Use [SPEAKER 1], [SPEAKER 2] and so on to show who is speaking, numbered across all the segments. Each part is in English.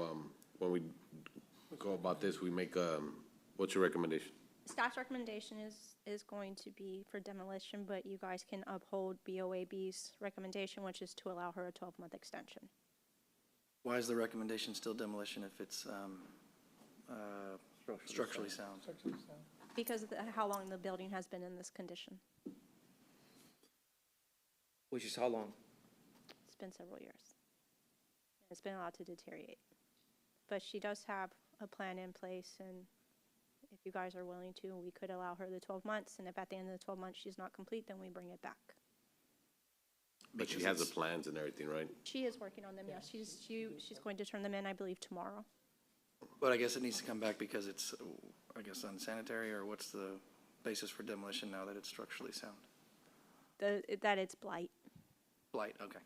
[SPEAKER 1] um, when we go about this, we make, um, what's your recommendation?
[SPEAKER 2] Staff's recommendation is, is going to be for demolition, but you guys can uphold BOAB's recommendation, which is to allow her a 12-month extension.
[SPEAKER 3] Why is the recommendation still demolition if it's um, uh, structurally sound?
[SPEAKER 2] Because of the- how long the building has been in this condition.
[SPEAKER 4] Which is how long?
[SPEAKER 2] It's been several years. It's been allowed to deteriorate. But she does have a plan in place, and if you guys are willing to, we could allow her the 12 months, and if at the end of the 12 months she's not complete, then we bring it back.
[SPEAKER 1] But she has the plans and everything, right?
[SPEAKER 2] She is working on them, yes. She's, she, she's going to turn them in, I believe, tomorrow.
[SPEAKER 3] But I guess it needs to come back because it's, uh, I guess, unsanitary, or what's the basis for demolition now that it's structurally sound?
[SPEAKER 2] The, that it's blight.
[SPEAKER 3] Blight, okay.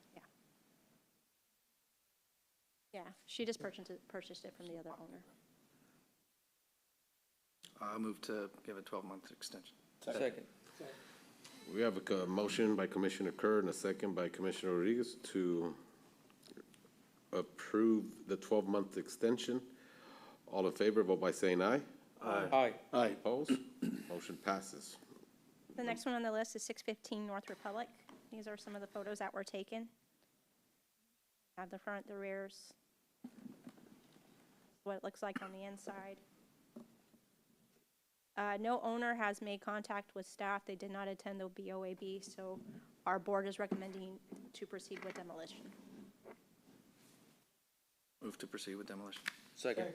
[SPEAKER 2] Yeah, she just purchased it, purchased it from the other owner.
[SPEAKER 3] I'll move to give a 12-month extension.
[SPEAKER 4] Second.
[SPEAKER 1] We have a co- motion by Commissioner Kerr and a second by Commissioner Rodriguez to approve the twelve-month extension. All in favor, vote by saying aye.
[SPEAKER 4] Aye.
[SPEAKER 1] Aye. Opposed? Motion passes.
[SPEAKER 2] The next one on the list is 615 North Republic. These are some of the photos that were taken. Have the front, the rears, what it looks like on the inside. Uh, No owner has made contact with staff. They did not attend the BOAB, so our board is recommending to proceed with demolition.
[SPEAKER 3] Move to proceed with demolition.
[SPEAKER 4] Second.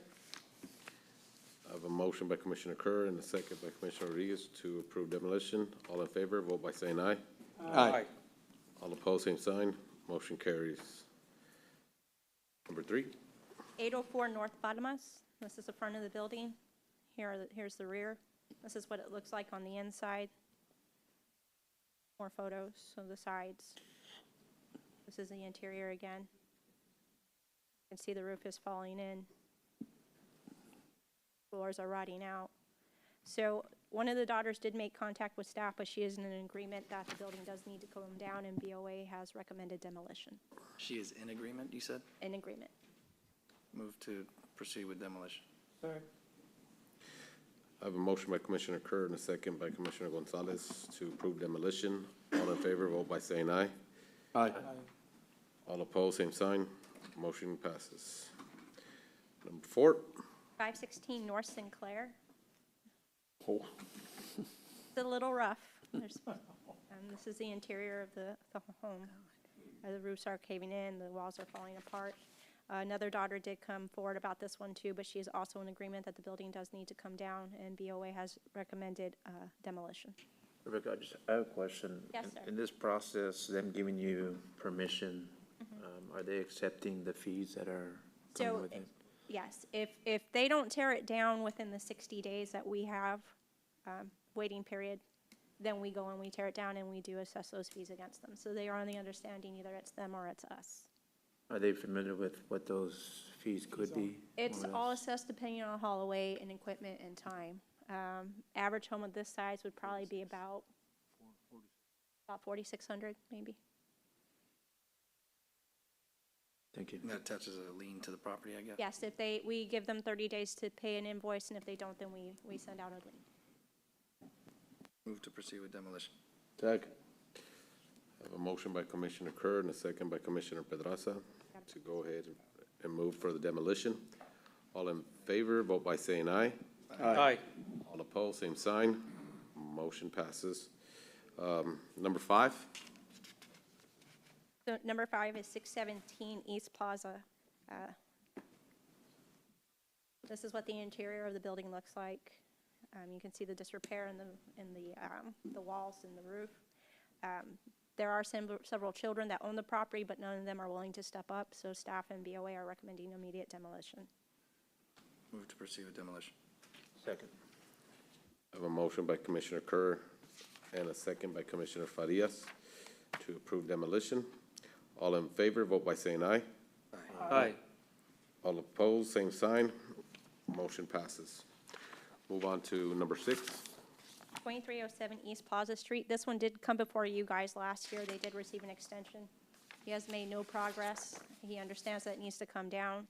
[SPEAKER 1] I have a motion by Commissioner Kerr and a second by Commissioner Rodriguez to approve demolition. All in favor, vote by saying aye.
[SPEAKER 4] Aye.
[SPEAKER 1] All opposed, same sign. Motion carries. Number three,
[SPEAKER 2] 804 North Bottomas. This is the front of the building. Here, are the- here's the rear. This is what it looks like on the inside. More photos of the sides. This is the interior again. You can see the roof is falling in. Floors are rotting out. So one of the daughters did make contact with staff, but she isn't in agreement that the building does need to come down, and BOA has recommended demolition.
[SPEAKER 3] She is in agreement, you said?
[SPEAKER 2] In agreement.
[SPEAKER 3] Move to proceed with demolition.
[SPEAKER 1] I have a motion by Commissioner Kerr and a second by Commissioner Gonzalez to approve demolition. All in favor, vote by saying aye.
[SPEAKER 3] Aye.
[SPEAKER 1] All opposed, same sign. Motion passes. Number four.
[SPEAKER 2] 516 North Sinclair.
[SPEAKER 1] Oh.
[SPEAKER 2] It's a little rough. There's- um, This is the interior of the, the home. Uh, The roofs are caving in, the walls are falling apart. Uh, Another daughter did come forward about this one too, but she is also in agreement that the building does need to come down, and BOA has recommended uh, demolition.
[SPEAKER 5] Rebecca, I just I have a question.
[SPEAKER 2] Yes,
[SPEAKER 5] In-
[SPEAKER 2] sir.
[SPEAKER 5] In this process, them giving you permission, um, are they accepting the fees that are coming
[SPEAKER 2] Mm-hmm. So,
[SPEAKER 5] with it?
[SPEAKER 2] yes, if, if they don't tear it down within the 60 days that we have, um, waiting period, then we go and we tear it down and we do assess those fees against them. So they are on the understanding either it's them or it's us.
[SPEAKER 5] Are they familiar with what those fees could be?
[SPEAKER 2] It's
[SPEAKER 5] more or
[SPEAKER 2] all
[SPEAKER 5] less?
[SPEAKER 2] assessed depending on hallway and equipment and time. Um, average home of this size would probably be about, about forty-six hundred, maybe.
[SPEAKER 5] Thank you.
[SPEAKER 3] And that attaches a lien to the property, I guess?
[SPEAKER 2] Yes, if they, we give them thirty days to pay an invoice, and if they don't, then we, we send out a lien.
[SPEAKER 3] Move to proceed with demolition.
[SPEAKER 1] Second. I have a motion by Commissioner Kerr and a second by Commissioner Pedraza to go ahead and move for the demolition. All in favor, vote by saying aye.
[SPEAKER 4] Aye.
[SPEAKER 1] All opposed, same sign. Motion passes. Um, Number five,
[SPEAKER 2] So number five is six seventeen East Plaza. Uh, This is what the interior of the building looks like. Um, you can see the disrepair in the, in the, um, the walls and the roof. Um, There are sem- several children that own the property, but none of them are willing to step up, so staff and BOA are recommending immediate demolition.
[SPEAKER 3] Move to proceed with demolition.
[SPEAKER 5] Second.
[SPEAKER 1] I have a motion by Commissioner Kerr and a second by Commissioner Farias to approve demolition. All in favor, vote by saying aye.
[SPEAKER 4] Aye.
[SPEAKER 1] All opposed, same sign. Motion passes. Move on to number six.
[SPEAKER 2] 2307 East Plaza Street. This one did come before you guys last year. They did receive an extension. He has made no progress. He understands that it needs to come down.